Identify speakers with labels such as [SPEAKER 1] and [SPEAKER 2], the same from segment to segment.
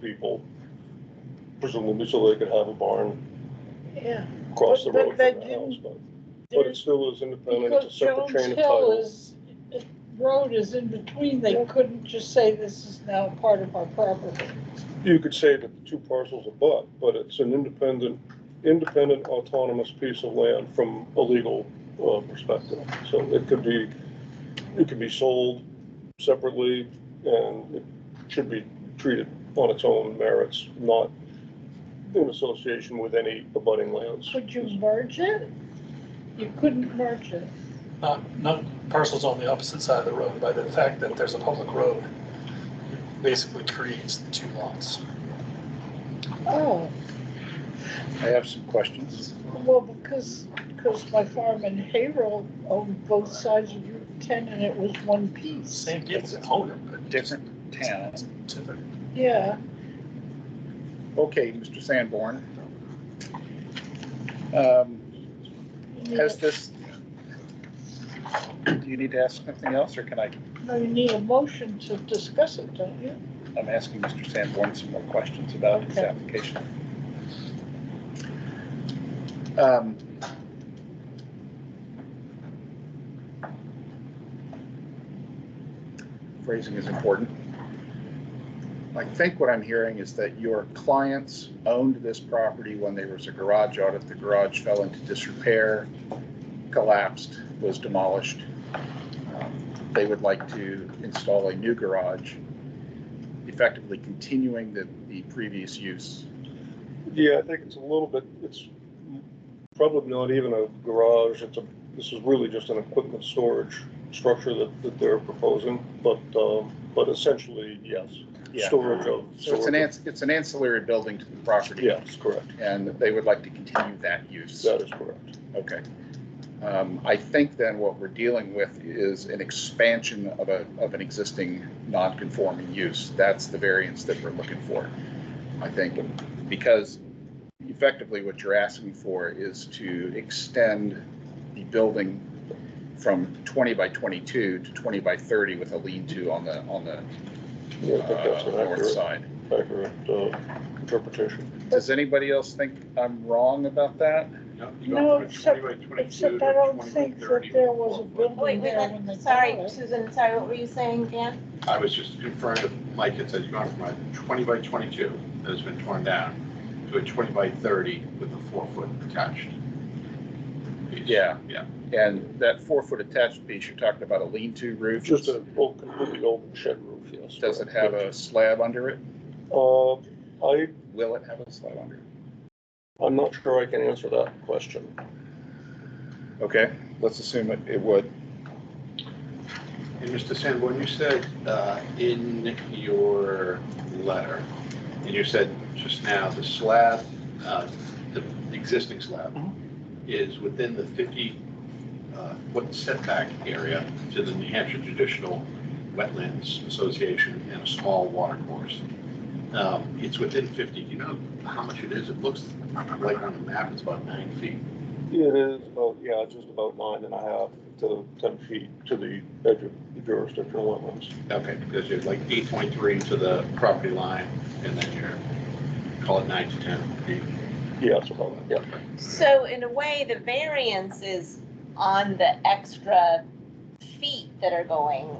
[SPEAKER 1] people, presumably so they could have a barn
[SPEAKER 2] Yeah.
[SPEAKER 1] across the
[SPEAKER 2] But- but
[SPEAKER 1] road from
[SPEAKER 2] that
[SPEAKER 1] the house,
[SPEAKER 2] didn't-
[SPEAKER 1] but, but it still is independent, it's a
[SPEAKER 2] Because
[SPEAKER 1] separate
[SPEAKER 2] Jones
[SPEAKER 1] chain of
[SPEAKER 2] Hill
[SPEAKER 1] title.
[SPEAKER 2] is, it- road is in between, they couldn't just say this is now part of our property.
[SPEAKER 1] You could say that the two parcels are but, but it's an independent, independent autonomous piece of land from a legal, uh, perspective. So it could be, it could be sold separately and it should be treated on its own merits, not in association with any abutting lands.
[SPEAKER 2] Could you merge it? You couldn't merge it.
[SPEAKER 3] Not, not parcels on the opposite side of the road, by the fact that there's a public road, basically creates the two lots.
[SPEAKER 2] Oh,
[SPEAKER 4] I have some questions.
[SPEAKER 2] well, because, because my farm in Haverhill owned both sides of Route ten and it was one piece.
[SPEAKER 3] Same different owner, but
[SPEAKER 4] Different town.
[SPEAKER 3] different.
[SPEAKER 2] Yeah,
[SPEAKER 4] Okay, Mr. Sanborn. Um,
[SPEAKER 2] you
[SPEAKER 4] Has
[SPEAKER 2] need
[SPEAKER 4] this, do you need to ask something else, or can I,
[SPEAKER 2] a- no, you need a motion to discuss it, don't you?
[SPEAKER 4] I'm asking Mr. Sanborn some more questions about his
[SPEAKER 2] Okay.
[SPEAKER 4] application. Um, Phrasing is important. I think what I'm hearing is that your clients owned this property when there was a garage audit. The garage fell into disrepair, collapsed, was demolished. Um, They would like to install a new garage, effectively continuing the, the previous use.
[SPEAKER 1] Yeah, I think it's a little bit, it's probably not even a garage, it's a, this is really just an equipment storage structure that, that they're proposing, but, um, but essentially, yes. Storage of.
[SPEAKER 4] So it's an, ans- it's an ancillary building to the property.
[SPEAKER 1] Yes, correct,
[SPEAKER 4] And they would like to continue that use.
[SPEAKER 1] that is correct.
[SPEAKER 4] Okay. Um, I think then what we're dealing with is an expansion of a, of an existing non-conforming use. That's the variance that we're looking for, I think, because effectively what you're asking for is to extend the building from twenty by twenty-two to twenty by thirty with a lean-to on the, on the
[SPEAKER 1] Yeah, I think that's
[SPEAKER 4] uh,
[SPEAKER 1] an
[SPEAKER 4] north
[SPEAKER 1] accurate,
[SPEAKER 4] side.
[SPEAKER 1] accurate, uh, interpretation.
[SPEAKER 4] Does anybody else think I'm wrong about that?
[SPEAKER 2] No, except, except I don't think that there was a
[SPEAKER 5] Wait,
[SPEAKER 2] building
[SPEAKER 5] wait,
[SPEAKER 2] there when they bought
[SPEAKER 5] wait, sorry,
[SPEAKER 2] it.
[SPEAKER 5] Susan, sorry, what were you saying, Dan?
[SPEAKER 6] I was just referring to, Mike had said, you gone from a twenty by twenty-two that has been torn down to a twenty by thirty with a four-foot attached. piece.
[SPEAKER 4] Yeah.
[SPEAKER 6] Yeah.
[SPEAKER 4] And that four-foot attached piece, you're talking about a lean-to roof?
[SPEAKER 1] Just a, well, completely open shed roof, yes.
[SPEAKER 4] Does it
[SPEAKER 1] correct.
[SPEAKER 4] have a slab under it?
[SPEAKER 1] Uh, I,
[SPEAKER 4] Will it have a slab under it?
[SPEAKER 1] I'm not sure I can answer that question.
[SPEAKER 4] Okay, let's assume it, it would.
[SPEAKER 6] And Mr. Sanborn, you said, uh, in your letter, and you said just now, the slab, uh, the existing slab is within the fifty, uh, foot setback area to the New Hampshire Traditional Wetlands Association and a small water course. Um, it's within fifty, Do you know how much it is? It looks like on the map, it's about nine feet.
[SPEAKER 1] It is, about yeah, just about nine and a half to ten feet to the edge of the jurisdictional wetlands.
[SPEAKER 6] Okay, because you're like eight point three to the property line, and then you're, call it nine to ten feet.
[SPEAKER 1] Yeah, it's about that, yeah.
[SPEAKER 5] So in a way, the variance is on the extra feet that are going,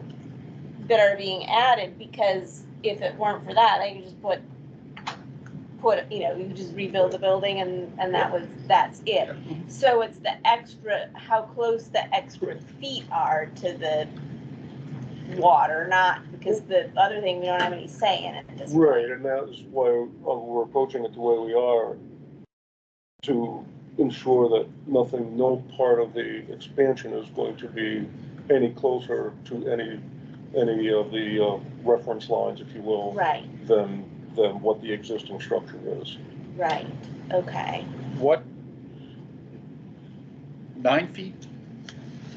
[SPEAKER 5] that are being added, because if it weren't for that, I could just put, put, you know, you could just rebuild the building and, and that was, that's it. So it's the extra, how close the extra feet are to the water, not, because the other thing, we don't have any say in it at this point.
[SPEAKER 1] Right, and that's why uh, we're approaching it the way we are, to ensure that nothing, no part of the expansion is going to be any closer to any, any of the uh, reference lines, if you will,
[SPEAKER 5] Right,
[SPEAKER 1] than, than what the existing structure is.
[SPEAKER 5] right, okay.
[SPEAKER 4] What? Nine feet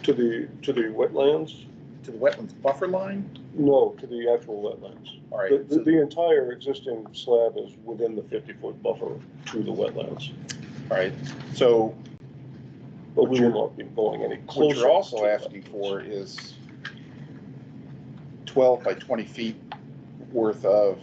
[SPEAKER 1] To the, to the wetlands?
[SPEAKER 4] to the wetlands buffer line?
[SPEAKER 1] No, to the actual wetlands.
[SPEAKER 4] All right,
[SPEAKER 1] The, the-
[SPEAKER 4] so-
[SPEAKER 1] the entire existing slab is within the fifty-foot buffer to the wetlands,
[SPEAKER 4] all right. So
[SPEAKER 1] but we will not be going any closer.
[SPEAKER 4] what you're
[SPEAKER 1] to
[SPEAKER 4] also
[SPEAKER 1] the
[SPEAKER 4] asking
[SPEAKER 1] wetlands.
[SPEAKER 4] for is twelve by twenty feet worth of